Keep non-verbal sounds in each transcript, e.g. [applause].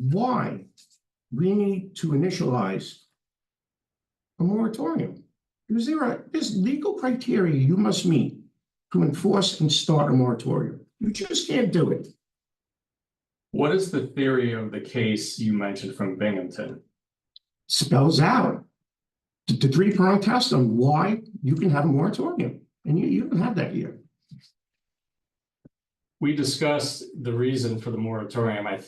why we need to initialize a moratorium. Because there are, there's legal criteria you must meet to enforce and start a moratorium. You just can't do it. What is the theory of the case you mentioned from Binghamton? Spells out the- the three-pronged test on why you can have a moratorium, and you, you don't have that here. We discussed the reason for the moratorium. I,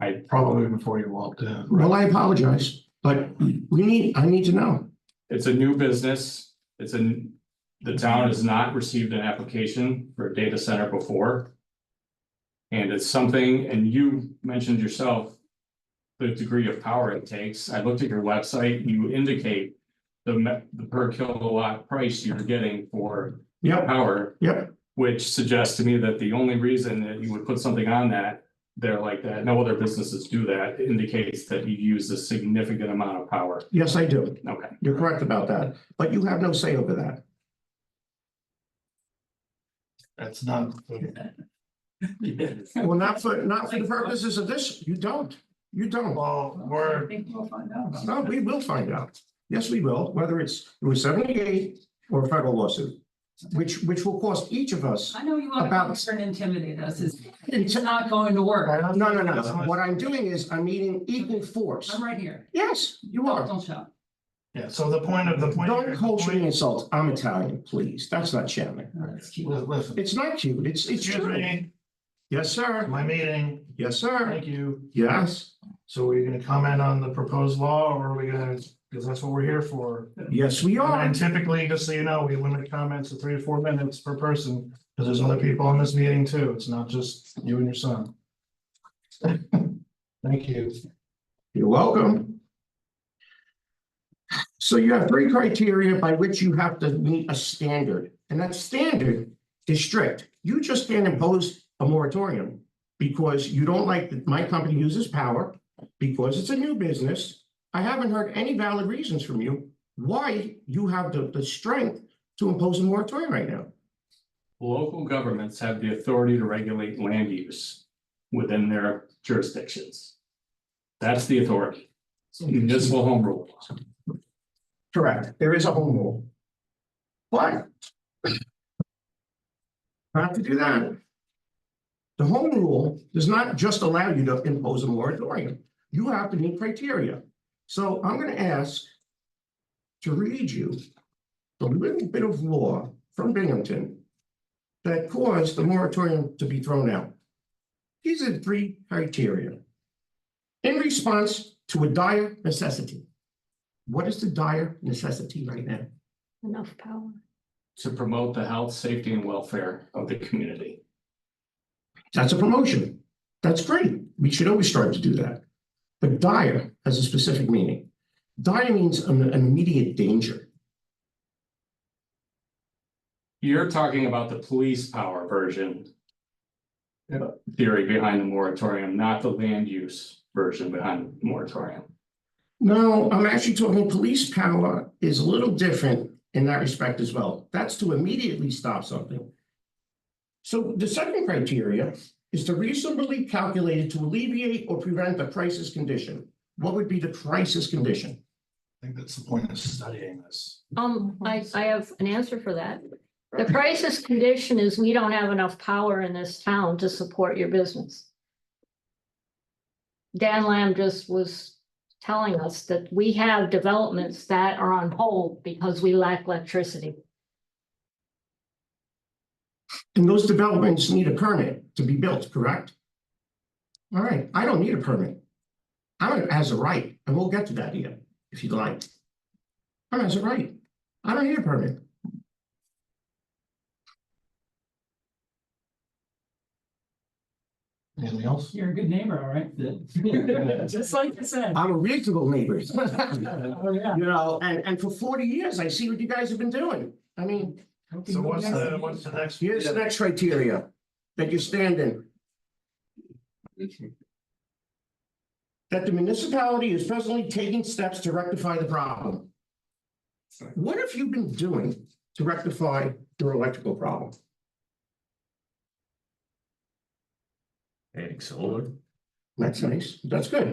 I probably before you walked in. Well, I apologize, but we need, I need to know. It's a new business. It's an, the town has not received an application for a data center before. And it's something, and you mentioned yourself, the degree of power it takes. I looked at your website, you indicate the me- the per kilowatt price you're getting for Yep, power, yep, which suggests to me that the only reason that you would put something on that there like that, no other businesses do that, indicates that you use a significant amount of power. yes, I do. Okay. You're correct about that, but you have no say over that. That's not. Well, not for, not for the purposes of this, you don't, you don't. Well, we're, think we'll find out. about No, that. we will find out. Yes, we will, whether it's, it was seventy-eight or a federal lawsuit, which, which will cost each of us. I know you want to come About- here and intimidate us. It's, it's not going to work. No, no, no. What I'm doing is I'm meeting equal force. I'm right here. Yes, you are. Don't shout. yeah, so the point of the point. Don't culturally insult. I'm Italian, please. That's not Shannon. No, that's cute. Li- Listen, It's not cute. It's, it's excuse true. me, Yes, sir. my meeting, Yes, sir. thank you. Yes, So are you gonna comment on the proposed law or are we gonna, because that's what we're here for. yes, we are. And typically, just so you know, we limit comments to three to four minutes per person, because there's other people on this meeting too. It's not just you and your [laughs] son. Thank you. You're welcome. So you have three criteria by which you have to meet a standard, and that standard is strict. You just can't impose a moratorium because you don't like that my company uses power, because it's a new business. I haven't heard any valid reasons from you why you have the, the strength to impose a moratorium right now. Local governments have the authority to regulate land use within their jurisdictions. That's the authority, municipal home rule. law. Correct, there is a home rule. But. Not to do that. The home rule does not just allow you to impose a moratorium, you have to meet criteria. So I'm gonna ask. To read you. The little bit of law from Binghamton. That caused the moratorium to be thrown out. These are the three criteria. In response to a dire necessity. What is the dire necessity right now? Enough power. To promote the health, safety and welfare of the community. That's a promotion. That's great. We should always strive to do that. But dire has a specific meaning. Dire means an an immediate danger. You're talking about the police power version. uh, Theory behind the moratorium, not the land use version behind the moratorium. No, I'm actually talking police power is a little different in that respect as well. That's to immediately stop something. So the second criteria is to reasonably calculated to alleviate or prevent the crisis condition. What would be the crisis condition? I think that's the point of studying this. Um, I, I have an answer for that. The crisis condition is we don't have enough power in this town to support your business. Dan Lamb just was telling us that we have developments that are on hold because we lack electricity. And those developments need a permit to be built, correct? All right, I don't need a permit. I'm as a right, and we'll get to that here, if you'd like. I'm as a right. I don't need a permit. Anything else? You're a good neighbor, all right? [laughs] Just like you said. I'm a reasonable neighbor. Oh, [laughs] yeah. You know, and, and for forty years, I see what you guys have been doing. I mean, So what's the, what's the next? here's the next criteria that you stand in. that the municipality is presently taking steps to rectify the problem. What have you been doing to rectify your electrical problem? É, Adding solar. That's nice. That's good.